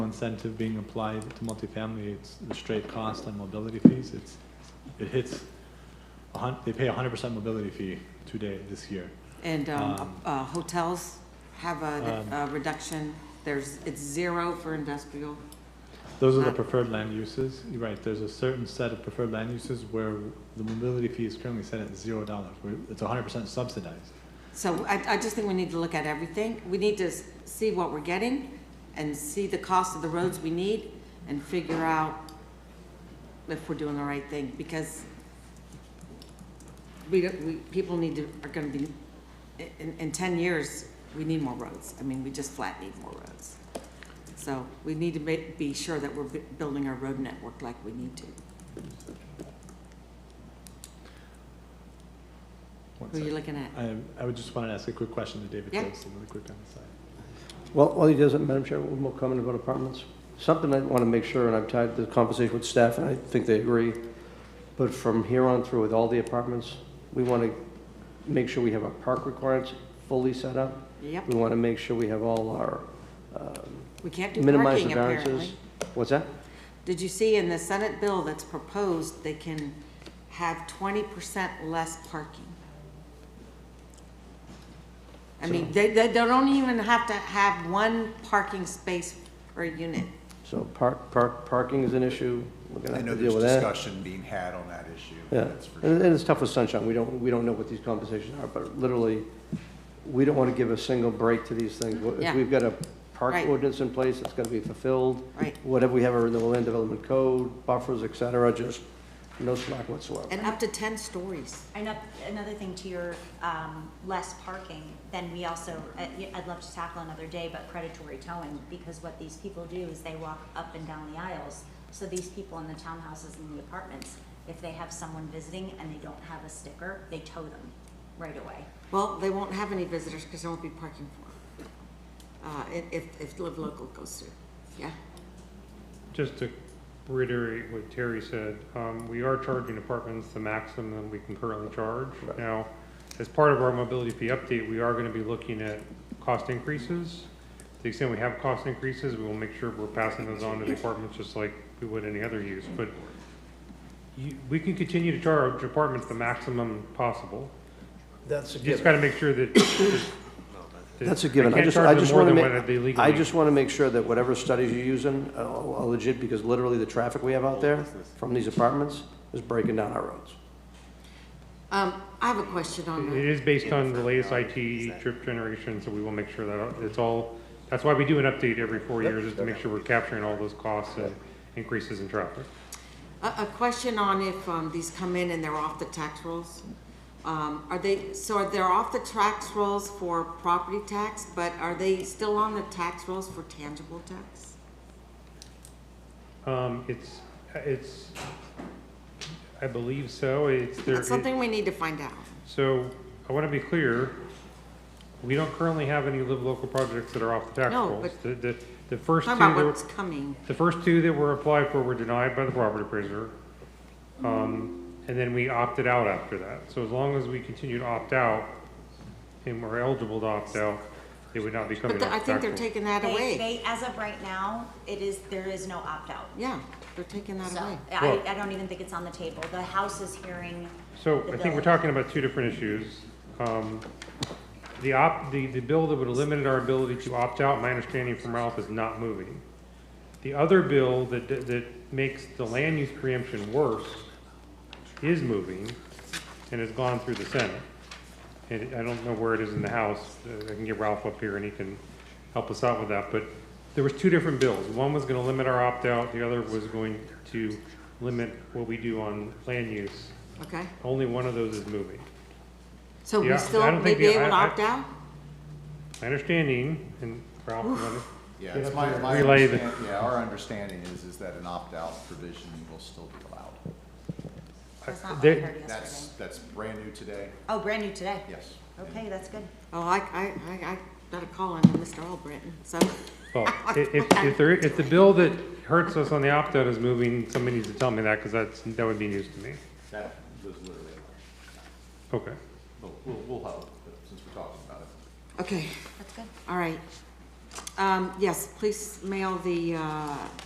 incentive being applied to multifamily, it's the straight cost on mobility fees, it's, it hits, a hun, they pay a hundred percent mobility fee today, this year. And um, Um, uh, hotels have a Um, a reduction, there's, it's zero for industrial. Those are the Uh, preferred land uses, you're right, there's a certain set of preferred land uses where the mobility fee is currently set at zero dollars, where it's hundred percent subsidized. So I, I just think we need to look at everything. We need to s- see what we're getting and see the cost of the roads we need and figure out if we're doing the right thing because we, don't- we, people need to, are gonna be, in, in ten years, we need more roads. I mean, we just flat need more roads. So we need to ma- be sure that we're bu- building our road network like we need to. One Who are you second. looking at? I, I would just wanna ask a quick question to David Yeah. Phillips, really quick on the side. Well, while he does it, Madam Chair, one more comment about apartments. Something I want to make sure, and I've had the conversation with staff, and I think they agree, but from here on through with all the apartments, we want to make sure we have our park requirements fully set up. Yep, We want to make sure we have all our um, we can't do minimize parking the apparently. variances. What's that? Did you see in the Senate bill that's proposed, they can have twenty percent less parking? I mean, they, they don't even have to have one parking space per unit. So park, park, parking is an issue. We're going to I know have to there's deal with that. discussion being had on that issue. Yeah, that's for sure. and and it's tough with sunshine, we don't, we don't know what these conversations are, but literally, we don't want to give a single break to these things. Well, Yeah. If we've got a park Right. ordinance in place, it's gonna be fulfilled. Right. Whatever we have in the land development code, buffers, et cetera, just no slack whatsoever. And up to ten stories. And up- another thing to your um, less parking, then we also, I- I'd love to tackle another day, but predatory towing, because what these people do is they walk up and down the aisles. So these people in the townhouses and the apartments, if they have someone visiting and they don't have a sticker, they tow them right away. Well, they won't have any visitors because there won't be parking for them. Uh, if- if, if Live Local goes through, yeah? Just to reiterate what Terry said, um, we are charging apartments the maximum that we can currently charge. Right. Now, as part of our mobility fee update, we are gonna be looking at cost increases. To the extent we have cost increases, we will make sure we're passing those on to the apartments just like we would any other use. But you, we can continue to charge apartments the maximum possible. That's a You just gotta make sure that. that- That's a I given. I can't just, charge I them just more want to than make, what they I legally- just want to make sure that whatever studies you're using are are legit, because literally the traffic we have out there from these apartments is breaking down our roads. Um, I have a question on It that. is based on the latest IT trip generation, so we will make sure that it's all, that's why we do an update every four years, is to make sure we're capturing all those costs and increases in traffic. A, a question on if, um, these come in and they're off the tax rolls? Um, are they, so are they off the tax rolls for property tax, but are they still on the tax rolls for tangible tax? Um, it's, it's, I believe so, it's there. That's something we need to find out. So, I wanna be clear, we don't currently have any live local projects that are off the tax No, rolls. but- The, the, the first two Talk about that were- what's coming. The first two that were applied for were denied by the property appraiser. Um, and then we opted out after that. So as long as we continue to opt out and we're eligible to opt out, it would not be coming But the- off I think they're taxable. taking that They- away. They, as of right now, it is, there is no opt-out. Yeah, they're taking that So away. I, Well- I don't even think it's on the table. The House is hearing, So I think we're talking about two different issues. Um, the op, the, the bill that would have limited our ability to opt out, my understanding from Ralph, is not moving. The other bill that, that that makes the land use preemption worse is moving and has gone through the Senate. And I don't know where it is in the House. Uh, I can get Ralph up here and he can help us out with that. But there was two different bills. One was gonna limit our opt-out, the other was going to limit what we do on land use. Okay? Only one of those is moving. So we Yeah, I still don't may think be the- able to I- I- opt out? My understanding, and Ralph, you wanna- Yeah, it's my, my Relay the- understand- yeah, our understanding is, is that an opt-out provision will still be allowed. that's not what I there- heard That's, yesterday. that's brand new today, Oh, brand new today? yes. Okay, that's good. Oh, I, I, I, I gotta call on Mr. Albritton, so, well, i- if, if there, if the bill that hurts us on the opt-out is moving, somebody needs to tell me that, because that's, that would be news to me. That was literally, Okay. we'll, we'll, we'll help, since we're talking about it. okay. That's good. All right. Um, um, yes, please mail the, uh,